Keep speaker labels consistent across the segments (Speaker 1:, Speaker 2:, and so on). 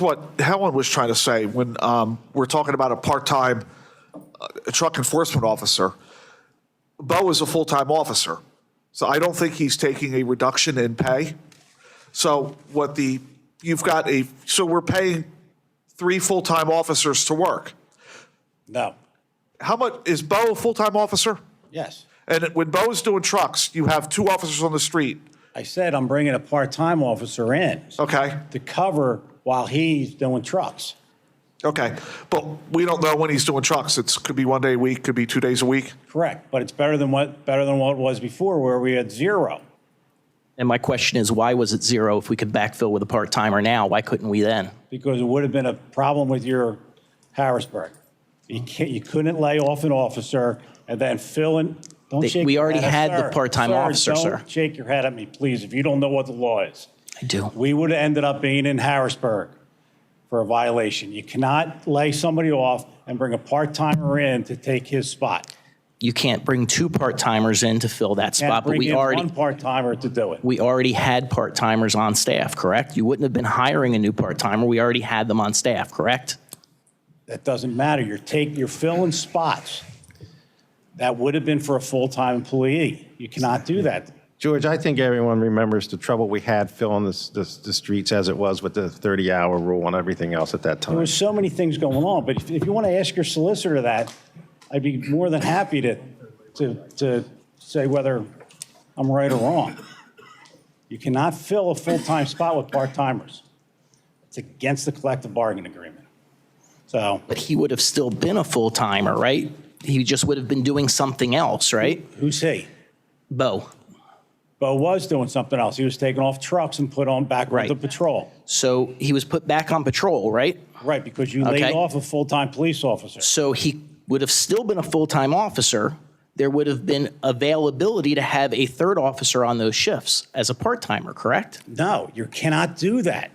Speaker 1: what Helen was trying to say when um, we're talking about a part-time uh, truck enforcement officer. Bo is a full-time officer, so I don't think he's taking a reduction in pay. So what the, you've got a, so we're paying three full-time officers to work.
Speaker 2: No.
Speaker 1: How much, is Bo a full-time officer?
Speaker 2: Yes.
Speaker 1: And when Bo's doing trucks, you have two officers on the street,
Speaker 2: I said I'm bringing a part-time officer in
Speaker 1: okay?
Speaker 2: to cover while he's doing trucks.
Speaker 1: Okay, but we don't know when he's doing trucks. It's, could be one day a week, could be two days a week.
Speaker 2: Correct, but it's better than what, better than what it was before where we had zero.
Speaker 3: And my question is, why was it zero if we could backfill with a part-timer now? Why couldn't we then?
Speaker 2: because it would have been a problem with your Harrisburg. You can't, you couldn't lay off an officer and then fill in, don't
Speaker 3: They-
Speaker 2: shake.
Speaker 3: we
Speaker 2: your
Speaker 3: already
Speaker 2: head,
Speaker 3: had the
Speaker 2: sir.
Speaker 3: part-time officer, sir.
Speaker 2: Don't shake your head at me, please, if you don't know what the law is.
Speaker 3: I do.
Speaker 2: We would have ended up being in Harrisburg for a violation. You cannot lay somebody off and bring a part-timer in to take his spot.
Speaker 3: You can't bring two part-timers in to fill that
Speaker 2: And
Speaker 3: spot, but
Speaker 2: bring
Speaker 3: we
Speaker 2: in one
Speaker 3: already,
Speaker 2: part-timer to do it.
Speaker 3: we already had part-timers on staff, correct? You wouldn't have been hiring a new part-timer. We already had them on staff, correct?
Speaker 2: That doesn't matter. You're taking, you're filling spots. That would have been for a full-time employee. You cannot do that.
Speaker 4: George, I think everyone remembers the trouble we had filling this, this, the streets as it was with the 30-hour rule and everything else at that
Speaker 2: There
Speaker 4: time.
Speaker 2: was so many things going on, but if- if you want to ask your solicitor that, I'd be more than happy to, to, to say whether I'm right or wrong. You cannot fill a full-time spot with part-timers. It's against the collective bargaining agreement. So
Speaker 3: But he would have still been a full-timer, right? He just would have been doing something else, right?
Speaker 2: who's he?
Speaker 3: Bo.
Speaker 2: Bo was doing something else. He was taking off trucks and put on back with
Speaker 3: Right.
Speaker 2: the patrol.
Speaker 3: So he was put back on patrol, right?
Speaker 2: Right, because you laid
Speaker 3: Okay.
Speaker 2: off a full-time police officer.
Speaker 3: So he would have still been a full-time officer. There would have been availability to have a third officer on those shifts as a part-timer, correct?
Speaker 2: No, you cannot do that.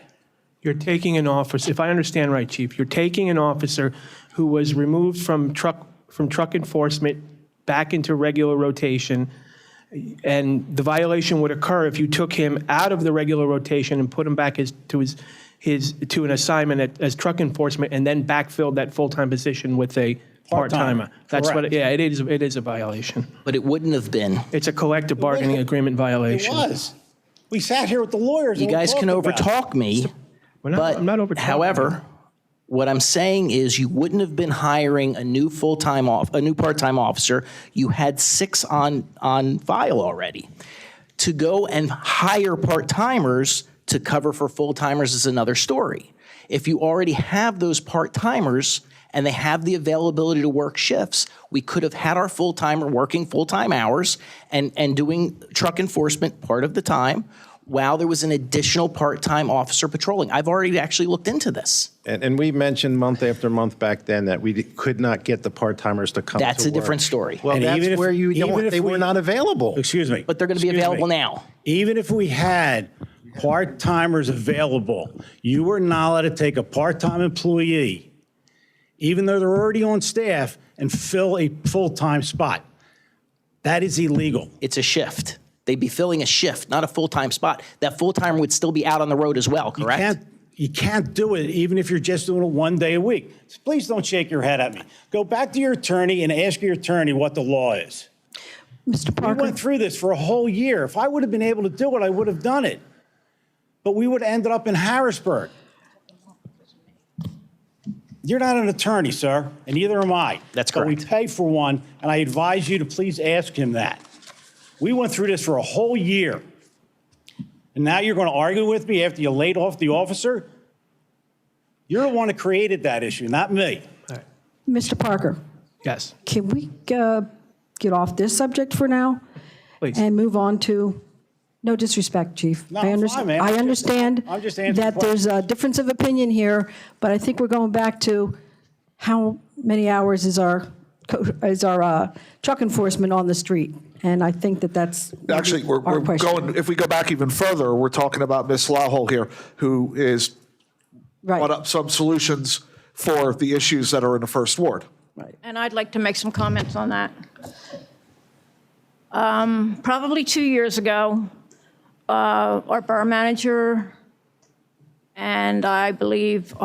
Speaker 5: You're taking an officer, if I understand right, Chief, you're taking an officer who was removed from truck, from truck enforcement back into regular rotation, and the violation would occur if you took him out of the regular rotation and put him back as, to his, his, to an assignment at- as truck enforcement, and then backfilled that full-time position with a
Speaker 2: Part-timer,
Speaker 5: part-timer. That's what,
Speaker 2: correct.
Speaker 5: yeah, it is, it is a violation.
Speaker 3: But it wouldn't have been.
Speaker 5: It's a collective bargaining agreement
Speaker 2: It
Speaker 5: violation.
Speaker 2: was. We sat here with the lawyers.
Speaker 3: You
Speaker 2: and we
Speaker 3: guys can
Speaker 2: talked about it.
Speaker 3: overtalk me,
Speaker 5: We're not- I'm not
Speaker 3: but
Speaker 5: overtalking.
Speaker 3: however, what I'm saying is you wouldn't have been hiring a new full-time off, a new part-time officer. You had six on, on file already. To go and hire part-timers to cover for full-timers is another story. If you already have those part-timers and they have the availability to work shifts, we could have had our full-timer working full-time hours and, and doing truck enforcement part of the time while there was an additional part-time officer patrolling. I've already actually looked into this.
Speaker 4: And, and we mentioned month after month back then that we could not get the part-timers to come to work.
Speaker 3: That's a different story.
Speaker 4: Well,
Speaker 2: And even
Speaker 4: that's
Speaker 2: if-
Speaker 4: where you,
Speaker 2: even
Speaker 4: don't-
Speaker 2: if
Speaker 4: they
Speaker 2: we-
Speaker 4: were not available.
Speaker 2: Excuse me.
Speaker 3: But they're gonna be
Speaker 2: Excuse
Speaker 3: available
Speaker 2: me.
Speaker 3: now.
Speaker 2: Even if we had part-timers available, you were not allowed to take a part-time employee, even though they're already on staff, and fill a full-time spot. That is illegal.
Speaker 3: It's a shift. They'd be filling a shift, not a full-time spot. That full-timer would still be out on the road as well,
Speaker 2: You
Speaker 3: correct?
Speaker 2: can't, you can't do it, even if you're just doing it one day a week. Please don't shake your head at me. Go back to your attorney and ask your attorney what the law is.
Speaker 6: Mr.
Speaker 2: We
Speaker 6: Parker,
Speaker 2: went through this for a whole year. If I would have been able to do it, I would have done it. But we would have ended up in Harrisburg. You're not an attorney, sir, and neither am I.
Speaker 3: That's
Speaker 2: But we
Speaker 3: correct.
Speaker 2: pay for one, and I advise you to please ask him that. We went through this for a whole year. And now you're going to argue with me after you laid off the officer? You're the one that created that issue, not me.
Speaker 6: Mr. Parker,
Speaker 5: Yes,
Speaker 6: can we uh, get off this subject for now
Speaker 5: please.
Speaker 6: and move on to, no disrespect, Chief.
Speaker 2: No,
Speaker 6: I
Speaker 2: it's
Speaker 6: underst-
Speaker 2: fine, ma'am.
Speaker 6: I understand
Speaker 2: I'm just answering
Speaker 6: that there's a difference of opinion here, but I think we're going back to how many hours is our, co- is our uh, truck enforcement on the street? And I think that that's maybe
Speaker 1: Actually, we're,
Speaker 6: our
Speaker 1: we're
Speaker 6: question.
Speaker 1: going, if we go back even further, we're talking about Ms. Lawhol here, who is
Speaker 6: Right,
Speaker 1: brought up some solutions for the issues that are in the first ward.
Speaker 6: right.
Speaker 7: And I'd like to make some comments on that. Um, Probably two years ago, uh, our bar manager And I believe